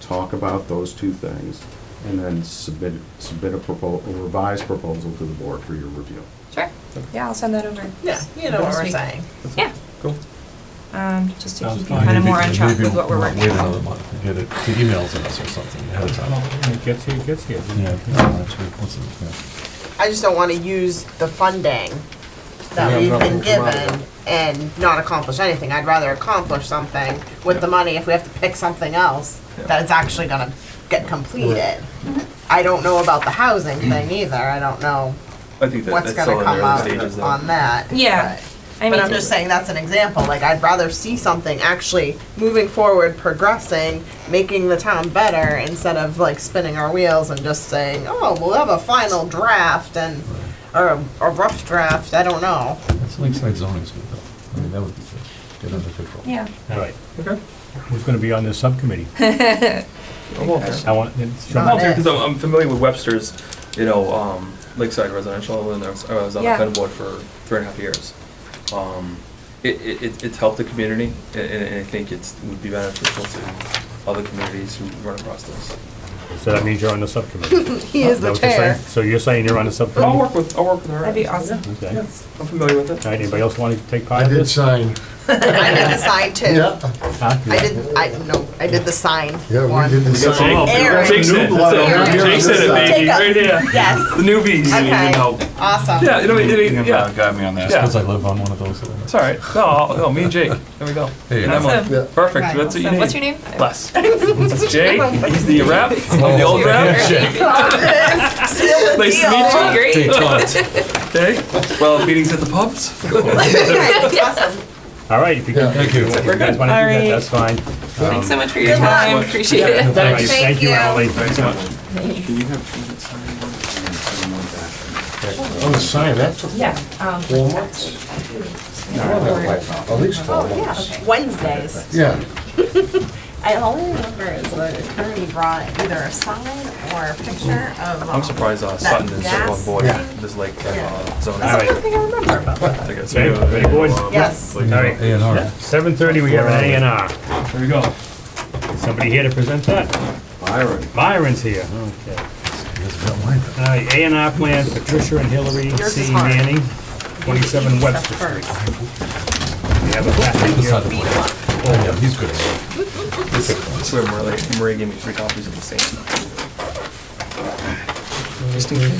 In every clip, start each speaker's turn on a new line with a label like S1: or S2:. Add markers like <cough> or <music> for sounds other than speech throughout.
S1: talk about those two things, and then submit, submit a proposal, a revised proposal to the board for your review.
S2: Sure.
S3: Yeah, I'll send that over.
S2: Yeah, you know what
S3: This
S2: we're
S3: week.
S2: saying.
S3: Yeah,
S4: Cool.
S3: um, just to
S5: Sounds
S3: keep you
S5: fine.
S3: kind of
S5: Maybe-
S3: more on track with what we're working
S6: Wait
S3: on.
S6: another month, and get it, the emails in us or something ahead of time.
S5: Well, when It gets here, it gets here.
S6: Yeah, no, that's right. What's it,
S2: I just don't want to use the funding that
S5: We
S2: we've
S5: have
S2: been
S5: nothing to come out of
S2: given and not accomplish anything. I'd rather accomplish something with the money if we have to pick something else that it's actually gonna get completed. I don't know about the housing thing either. I don't know
S7: I think that,
S2: what's
S7: that's all
S2: gonna
S7: in
S2: come
S7: their early stages
S2: up
S7: though.
S2: on that.
S3: Yeah, I
S2: But I'm
S3: mean,
S2: just saying that's an example. Like I'd rather see something actually moving forward, progressing, making the town better instead of like spinning our wheels and just saying, "Oh, we'll have a final draft and or a, a rough draft." I don't know. <laughs>
S6: yeah. That's Lakeside zoning's good though. I mean, that would be good. Get under control.
S3: yeah,
S5: All right.
S6: Okay.
S5: Who's gonna be on this subcommittee? I want, it's
S2: Not
S5: Walter.
S2: it.
S7: Because I'm, I'm familiar with Webster's, you know, um, Lakeside Residential, and I was, I was on the
S3: Yeah.
S7: planning board for three and a half years. Um, it, it, it- it's helped the community, and, and and I think it's, would be beneficial to other communities who run across this.
S5: So that means you're on the
S2: <laughs>
S5: subcommittee.
S2: He is the
S5: that what you're saying?
S2: chair.
S5: So you're saying you're on the
S7: I'll
S5: subcommittee?
S7: work with, I'll work with her.
S3: that'd be awesome.
S5: Okay. All
S7: I'm familiar with it.
S5: right, anybody else want to take part
S8: I
S5: in
S8: did
S5: this?
S8: sign,
S2: I did the sign too.
S8: yeah,
S5: Huh?
S2: I did. I no. I did the sign.
S8: yeah,
S2: one.
S8: we did the sign.
S2: Aaron.
S7: Jake's in it, that's it.
S2: Aaron.
S7: Jake's in it, baby,
S2: Take up-
S7: right
S2: <laughs>
S7: here.
S2: Yes.
S7: The newbies.
S2: Okay. Awesome. <laughs>
S7: Yeah, you uh, know, it- it- yeah,
S6: Got me on that.
S7: Yeah.
S6: Because I live on one of those. little-
S7: it's all right. No, I'll- no, me and Jake, there we go.
S6: There you
S7: And
S6: go.
S7: Emily.
S3: Awesome.
S8: Yeah.
S7: Perfect, that's what you
S3: So
S7: need.
S3: what's your name?
S7: Bless. Jake, he's the rep, I'm the old rep.
S2: Seal the
S7: Nice to
S2: deal.
S7: meet you.
S3: Great.
S6: Take time.
S7: Okay, well, meetings at the pubs?
S2: Okay, awesome.
S5: All right, if you
S8: Yeah.
S5: can-
S6: Thank you.
S5: if you guys want to do that,
S3: Alright.
S5: that's fine.
S3: Thanks so much for your
S2: Good luck.
S3: time, appreciate it.
S5: All right,
S2: Thank
S5: Thank you,
S2: you.
S5: Emily.
S7: Can you have,
S8: I'm gonna sign that took
S3: Yeah, um,
S8: four months, at least four months.
S2: Oh, Wednesdays.
S8: Yeah,
S2: I only remember is the attorney brought either a sign or a picture of. um,
S7: I'm surprised uh, Sutton is
S2: That
S7: on board
S8: gas?
S7: with this lake uh, zoning.
S5: All right.
S2: I remember about that.
S7: I guess.
S5: Okay, ready, boys?
S2: Yes.
S5: All right.
S6: A and R.
S5: Seven thirty, we have an A and R.
S7: Here we go.
S5: Is Somebody here to present that?
S1: Byron,
S5: Myron's here. Okay.
S6: It's about mine.
S5: All right, A and R plan, Patricia and Hillary
S2: Yours is
S5: C.
S2: hard.
S5: Manning, twenty-seven Webster Street. We have a packet
S6: This
S5: here.
S6: side of the plate. Oh, yeah, he's good. at
S7: I swear, Maria, Maria gave me three copies of the same.
S5: How you doing?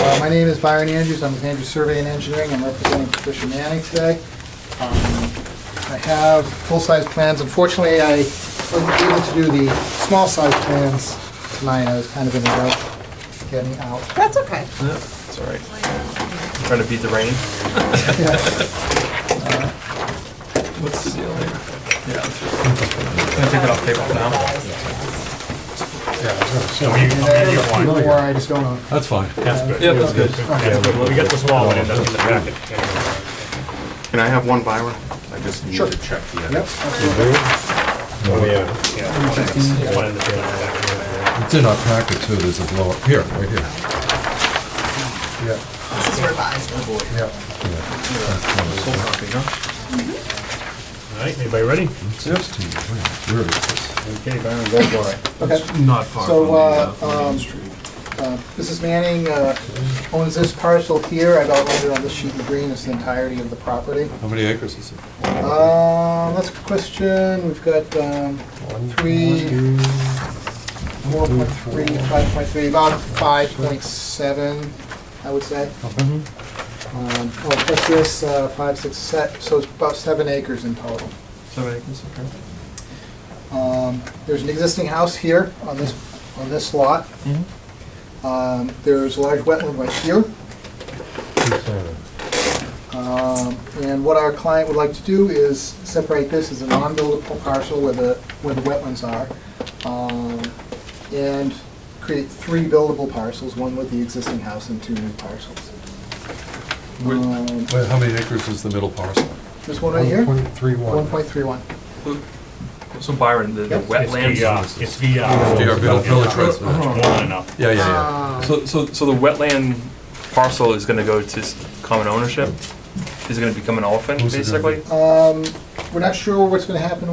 S9: Uh, My name is Byron Andrews, I'm with Andrews Survey and Engineering, I'm representing Patricia Manning today. Um, I have full-size plans, unfortunately, I wasn't able to do the small-size plans tonight, I was kind of in a rush getting out.
S2: That's okay.
S7: It's all right. Trying to beat the rain. What's the deal here? Yeah. that's right. Can I take it off paper now?
S5: So you, you
S9: There's a
S5: want-
S9: few more I just don't know.
S6: it. That's fine.
S5: that's good.
S7: Yeah, that's good.
S5: That's good. Well, we got the small one in the, in the packet.
S1: can I have one, Byron? I just need
S9: Sure.
S1: to check the
S9: Yep,
S1: edits.
S9: absolutely.
S5: Oh, yeah. Yeah. One in the packet.
S6: It's in our packet too. There's a blow up here, right here.
S8: yeah,
S2: This is revised.
S8: yeah.
S7: Full copy, huh?
S5: All right, anybody ready?
S6: It's next to you. Where is this?
S5: Okay, Byron, go for it.
S9: Okay.
S7: Not far
S9: So, uh, um, uh, Mrs. Manning uh, owns this parcel here, I've outlined it on this sheet in green, it's the entirety of the property.
S6: How many acres is it?
S9: Um, that's a good question. We've got, um, three, four point three, five point three, about five point seven, I would say.
S7: Mm-hmm.
S9: Um, well, plus this, uh, five, six, se- so it's about seven acres in total.
S7: Seven acres, okay.
S9: Um, there's an existing house here on this, on this lot.
S7: Mm-hmm.
S9: Um, there's a large wetland right here. Um, And what our client would like to do is separate this as a non-buildable parcel where the, where the wetlands are, um, and create three buildable parcels, one with the existing house and two new parcels.
S6: Where-
S9: Um,
S6: where- How many acres is the middle parcel?
S9: There's one right here,
S8: 1.31.
S9: 1.31.
S7: So Byron, the the wetlands.
S5: It's VR, it's VR.
S6: Do you have Village Village
S5: It's
S6: Residential?
S5: more than enough.
S6: Yeah, yeah,
S9: Ah.
S6: yeah.
S2: uh, Um,
S7: So, so, so the wetland parcel is gonna go to s- common ownership? Is it gonna become an orphan,
S6: Who's it gonna
S7: basically?
S9: Um, we're not sure what's gonna happen